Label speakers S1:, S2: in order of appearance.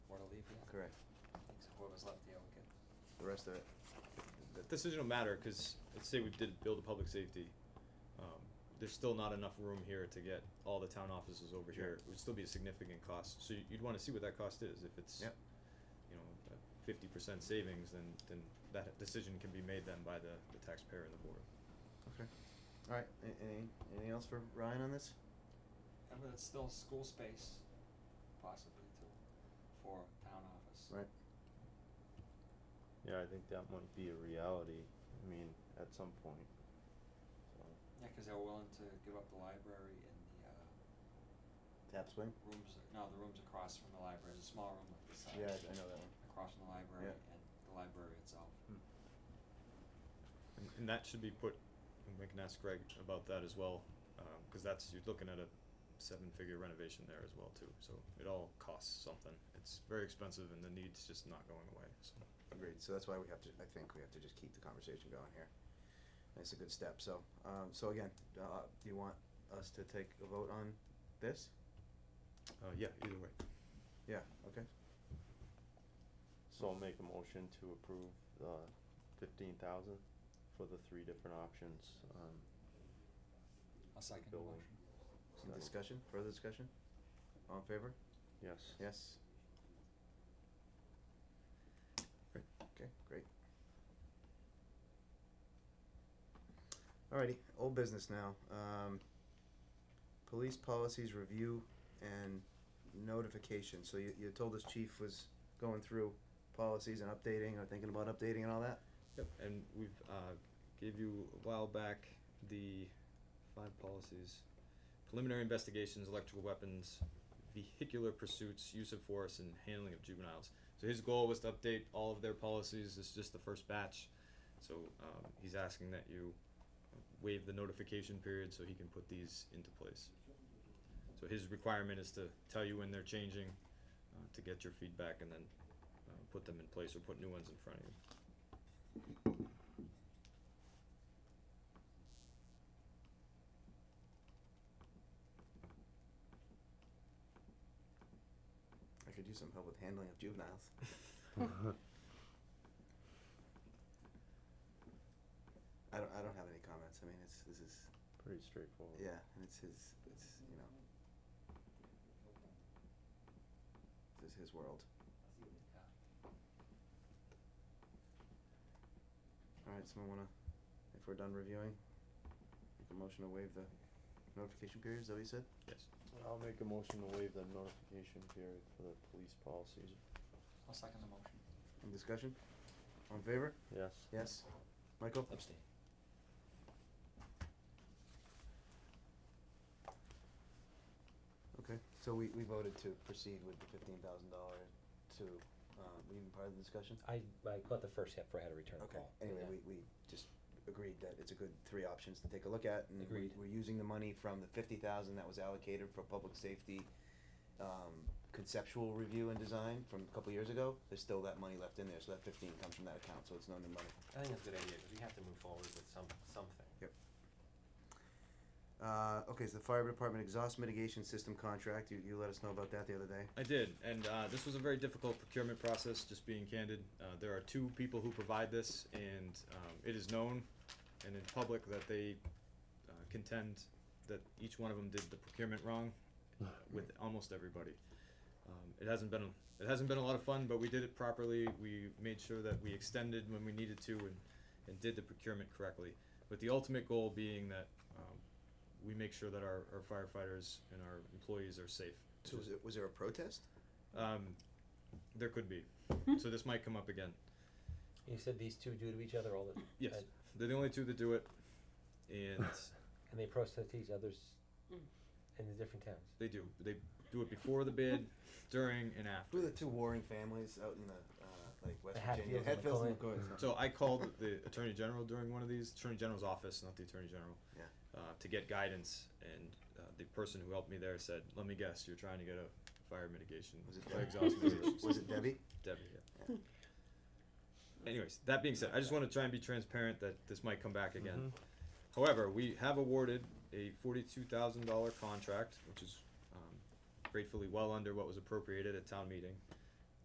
S1: Correct.
S2: So whoever's left, the will get.
S1: The rest of it.
S3: Th- This doesn't matter, cause let's say we did build a public safety, um, there's still not enough room here to get all the town offices over
S1: Sure.
S3: here, it would still be a significant cost, so y- you'd wanna see what that cost is, if it's
S1: Yep.
S3: you know, fifty percent savings, then then that decision can be made then by the the taxpayer and the board.
S1: Okay. All right. a- Any, anything else for Ryan on this?
S2: And but it's still school space, possibly too, for town office.
S1: Right.
S4: Yeah, I think that might be a reality, I mean, at some point, so.
S2: Yeah, cause they're willing to give up the library and the, uh,
S1: Tap swing?
S2: rooms, no, the rooms across from the library, there's a small room like this size.
S1: Yeah, I- I know that one.
S2: Across from the library
S1: Yeah. Hmm.
S2: and the library itself.
S4: Hmm.
S3: And and that should be put, and we can ask Greg about that as well, um, cause that's, you're looking at a seven figure renovation there as well too, so it all costs something, it's very expensive and the need's just not going away, so.
S1: Agreed. So that's why we have to, I think we have to just keep the conversation going here. That's a good step. So, um, so again, uh, do you want us to take a vote on this?
S3: Uh, yeah, either way.
S1: Yeah, okay.
S4: So I'll make a motion to approve the fifteen thousand for the three different options, um,
S2: I'll second the
S4: Building.
S2: motion.
S1: Any
S4: so,
S1: discussion, further discussion? All in favor?
S4: yes.
S1: Yes. Great, okay, great. Alrighty, old business now, um, police policies review and notification, so you, you told us chief was going through policies and updating, or thinking about updating and all that?
S3: Yep, and we've, uh, gave you a while back the five policies. Preliminary investigations, electrical weapons, vehicular pursuits, use of force, and handling of juveniles. So his goal was to update all of their policies, this is just the first batch. So, um, he's asking that you waive the notification period so he can put these into place. So his requirement is to tell you when they're changing, uh, to get your feedback and then, uh, put them in place or put new ones in front of you.
S1: I could use some help with handling of juveniles. I don't, I don't have any comments, I mean, it's, this is,
S4: Pretty straightforward.
S1: yeah, and it's his, it's, you know. This is his world. Alright, someone wanna, if we're done reviewing, make a motion to waive the notification period, is that what you said?
S3: Yes.
S4: I'll make a motion to waive the notification period for the police policies,
S2: I'll second the motion.
S1: Any discussion? All in favor?
S4: yes.
S1: Yes. Michael?
S3: Abstain.
S1: Okay, so we, we voted to proceed with the fifteen thousand dollar to, uh, were you part of the discussion?
S5: I, I caught the first half where I had to return the
S1: Okay,
S5: call.
S1: anyway,
S5: Yeah.
S1: we, we just agreed that it's a good three options to take a look at, and we,
S5: Agreed.
S1: we're using the money from the fifty thousand that was allocated for public safety, um, conceptual review and design from a couple years ago, there's still that money left in there, so that fifteen comes from that account, so it's no new money.
S6: I think that's a good idea, because we have to move forward with some, something.
S1: Uh, okay, so the fire department exhaust mitigation system contract, you, you let us know about that the other day.
S3: I did, and uh, this was a very difficult procurement process. Just being candid, uh, there are two people who provide this, and um, it is known and in public that they uh, contend that each one of them did the procurement wrong uh, with almost everybody. Um, it hasn't been it hasn't been a lot of fun, but we did it properly. We made sure that we extended when we needed to, and and did the procurement correctly. With the ultimate goal being that. Um, we make sure that our, our firefighters and our employees are safe.
S1: So was, it, was there a protest?
S3: Um, there could be. so this might come up again.
S5: You said these two do to each other all the
S3: Yes.
S5: and,
S3: They're the only two that do it, and
S5: and they protest each other's in the different towns.
S3: they do. They do it before the bid, during, and
S1: Who are the
S3: after.
S1: two warring families out in the, uh, like West
S5: The
S1: Virginia?
S5: Hatfields and
S1: McCoys. huh?
S3: So I called the attorney general during one of these, attorney general's office, not the attorney general,
S1: Yeah.
S3: uh, to get guidance. And uh, the person who helped me there said, "Let me guess, you're trying to get a fire mitigation,
S1: Was it Debbie?
S3: fire exhaust
S1: Was
S3: mitigation."
S1: it, was it Debbie?
S3: Debbie, yeah. Anyways, that being said, I just wanna try and be transparent that this might come back again. However, we have awarded a forty-two thousand dollar contract, which is, um, gratefully well under what was appropriated at town meeting.